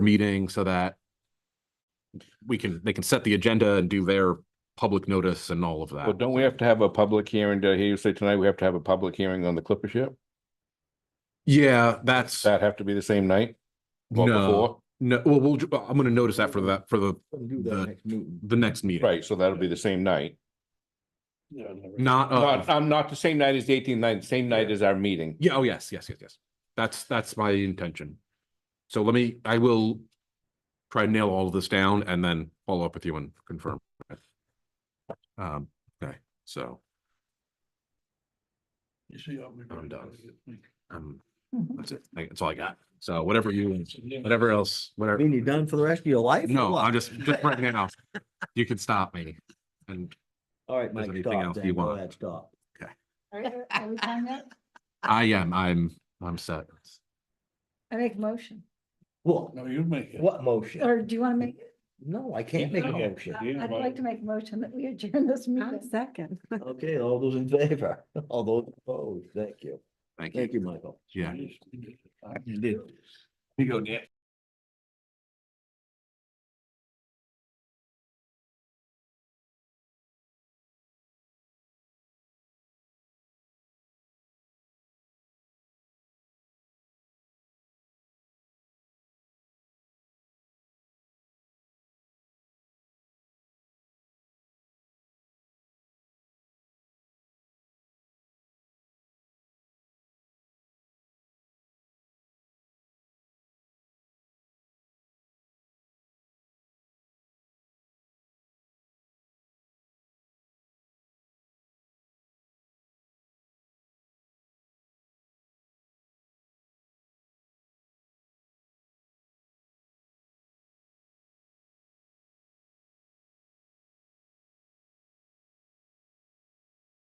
meeting so that we can, they can set the agenda and do their public notice and all of Well, that. don't we have to have a public hearing? Did I hear you say tonight we have to have a public hearing on the clipper ship? Yeah, that's, That have to be the same night? Well, no, before, no, well, we'll, ju- I'm gonna notice that for that, for the, Do The- that next meeting. the next meeting. Right, so that'll be the same night. Not, Not, uh, um, not the same night as the 18th night, same night as our meeting. yeah, oh, yes, yes, yes, yes. That's, that's my intention. So let me, I will try and nail all of this down and then follow up with you and confirm. Um, okay, so You see how we- I'm done. um, Mm-hmm. that's it. That's all I got. So whatever you, whatever else, I whatever. mean, you done for the rest of your life? or No, what? I'm just, just right now. You can stop me. And All right, there's Mike, anything stop else then. you Go want. ahead, stop. Are, are- are we done yet? I am, I'm, I'm set. I make a motion, What, you make what motion? or do you want to make, No, I can't make a motion. I- I'd like to make a motion that we adjourn this meeting. second. Okay, all those in favor, all those opposed, thank you. Thank you. Thank you, Michael. Yeah. You did. You go, Nick.